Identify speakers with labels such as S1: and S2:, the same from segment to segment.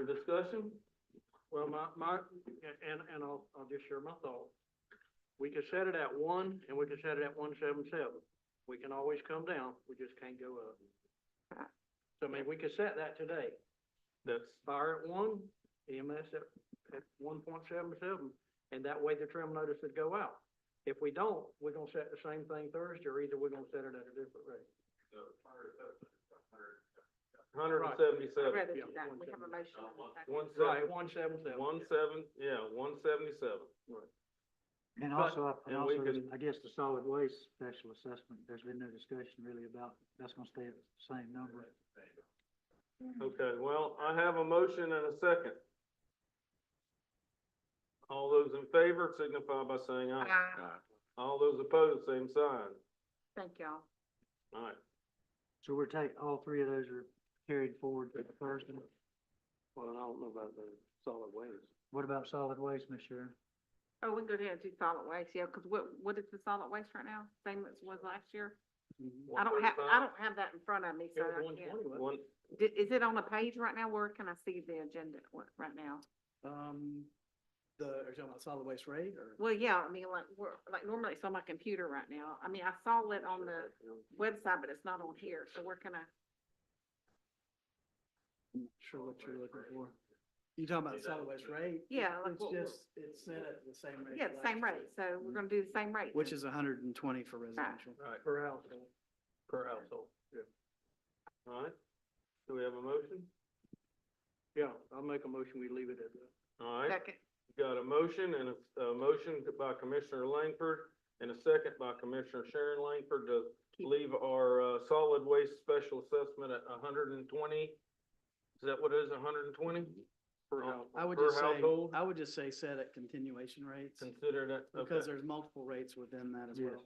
S1: discussion? Well, my, my, and, and I'll, I'll just share my thought. We can set it at one, and we can set it at one seven seven. We can always come down, we just can't go up.
S2: Right.
S1: So, I mean, we could set that today,
S3: That's,
S1: fire at one, EMS at, at one point seven seven, and that way the trim notice would go out. If we don't, we're gonna set the same thing Thursday, or either we're gonna set it at a different rate.
S3: hundred and seventy-seven,
S2: Rather
S1: yeah,
S2: than that,
S1: one
S2: we have a motion and a second.
S3: one
S1: Right,
S3: seven,
S1: one seven seven.
S3: one seven, yeah, one seventy-seven.
S4: And
S1: But-
S4: also, I- and
S3: and we
S4: also,
S3: can-
S4: I guess the solid waste special assessment, there's been no discussion really about, that's gonna stay at the same number.
S3: Okay, well, I have a motion and a second. All those in favor signify by saying aye.
S2: Uh,
S3: All those opposed, same sign.
S2: Thank y'all.
S3: All right,
S4: So we're take, all three of those are carried forward to the first. one.
S1: Well, I don't know about the solid waste.
S4: What about solid waste, Ms. Sharon?
S2: Oh, we can go ahead and do solid waste, yeah, because what, what is the solid waste right now? Same as was last year? I don't have,
S3: 135.
S2: I don't have that in front of me,
S1: It
S2: so
S1: was
S2: I
S1: one
S2: can't.
S1: twenty, wasn't
S3: one,
S2: Di- Is it on a page right now? Where can I see the agenda wa- right now?
S5: Um, the, are you talking about solid waste rate or?
S2: Well, yeah, I mean, like, we're, like normally it's on my computer right now. I mean, I saw it on the website, but it's not on here, so where can I?
S5: I'm not Sure what you're looking for. You talking about the solid waste rate?
S2: Yeah, like
S5: It's
S2: what-
S5: just, it's set at the same rate.
S2: Yeah,
S5: as
S2: the same
S5: last
S2: rate,
S5: year,
S2: so we're gonna do the same rate.
S5: Which
S2: then.
S5: is hundred and twenty for residential.
S3: all right,
S1: it? Per household. Per household. Yeah,
S3: all right. Do we have a motion?
S1: yeah, I'll make a motion, we leave it at that.
S3: All right.
S2: Second,
S3: Got a motion and a, a motion by Commissioner Langford and a second by Commissioner Sharon Langford to
S2: Keep-
S3: leave our, uh, solid waste special assessment at hundred and twenty. Is that what it is, hundred and twenty?
S1: Per
S3: Oh,
S1: household.
S5: I would
S3: per
S5: just say,
S3: household?
S5: I would just say set at continuation rates
S3: Consider that,
S5: because
S3: okay.
S5: there's multiple rates within that as
S4: Yes.
S5: well.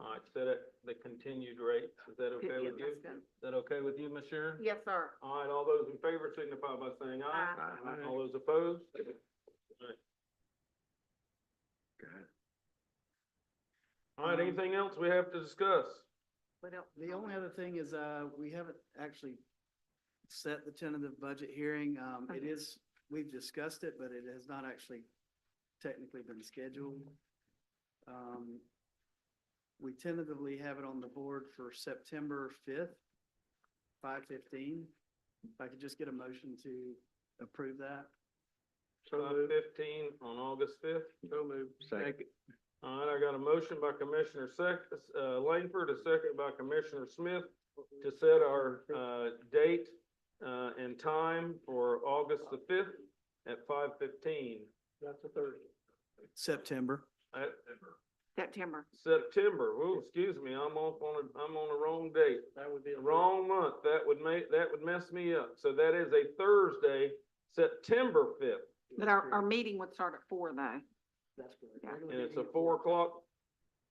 S3: All right, set at the continued rate. Is that
S2: Yeah,
S3: okay with you?
S2: that's
S3: Is
S2: good.
S3: that okay with you, Ms. Sharon?
S2: yes, sir.
S3: All right, all those in favor signify by saying aye.
S2: Aye.
S1: Aye.
S3: All those opposed? All right, anything else we have to discuss?
S2: What else?
S5: The only other thing is, uh, we haven't actually set the tentative budget hearing. Um, it
S2: Okay.
S5: is, we've discussed it, but it has not actually technically been scheduled. Um, we tentatively have it on the board for September fifth, five fifteen. If I could just get a motion to approve that.
S1: So
S3: Five
S1: moved,
S3: fifteen on August fifth?
S1: so moved. Second.
S3: All right, I got a motion by Commissioner Sec, uh, Langford, a second by Commissioner Smith to set our, uh, date, uh, and time for August the fifth at five fifteen.
S1: That's a Thursday.
S5: September.
S3: At
S2: September.
S3: September, oh, excuse me, I'm off on a, I'm on the wrong date,
S1: That would be. a
S3: wrong month, that would make, that would mess me up. So that is a Thursday, September fifth,
S1: Thursday.
S2: But our, our meeting would start at four though.
S5: That's
S2: Yeah.
S5: correct.
S3: and it's a four o'clock,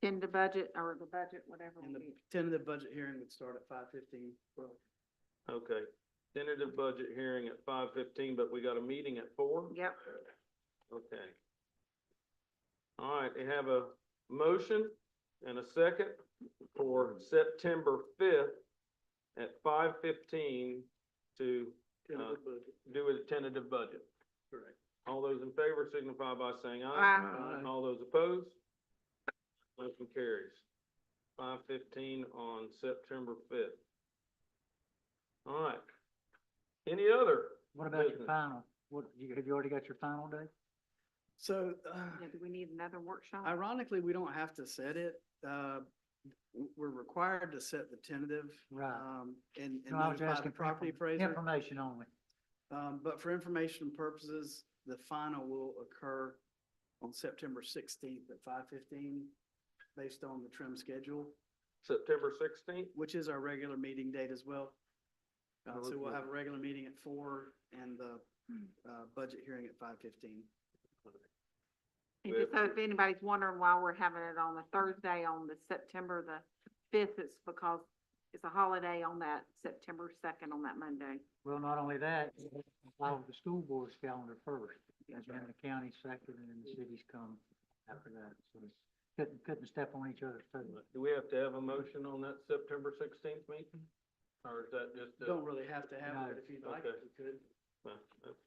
S2: Tend to budget or the budget, whatever.
S5: And the
S2: we do.
S5: tentative budget hearing would start at five fifteen.
S3: okay. Tentative budget hearing at five fifteen, but we got a meeting at four?
S2: Yep,
S3: Okay. All right, they have a motion and a second for September fifth at five fifteen to
S1: Tentative budget.
S3: do a tentative budget.
S1: Correct.
S3: All those in favor signify by saying aye.
S2: Aye.
S3: All those opposed? Motion carries. Five fifteen on September fifth. All right. Any other?
S4: What about your
S3: Business.
S4: final? What, you, have you already got your final date?
S5: So, uh,
S2: yeah, do we need another workshop?
S5: Ironically, we don't have to set it. uh, w- We're required to set the tentative
S4: Right.
S5: um, and and
S4: No, I was
S5: notify the
S4: asking for
S5: property
S4: inform-
S5: appraiser.
S4: information only.
S5: Um, But for information purposes, the final will occur on September sixteenth at five fifteen, based on the trim schedule,
S3: September sixteenth?
S5: which is our regular meeting date as well. Uh, So we'll
S3: Okay.
S5: have a regular meeting at four and the
S4: Hmm.
S5: uh, budget hearing at five fifteen.
S2: And just so if anybody's wondering why we're having it on the Thursday on the September the fifth, it's because it's a holiday on that September second on that Monday.
S4: Well, not only that, follow the school board's calendar first, and then the county's second, and then the cities come after that. So it's- couldn't, couldn't step on each other's toes.
S3: Do we have to have a motion on that September sixteenth meeting? Or is that just? a-
S5: Don't really have to have it,
S4: No.
S5: but if you'd like,
S3: Okay.
S5: we could.
S3: Well, that's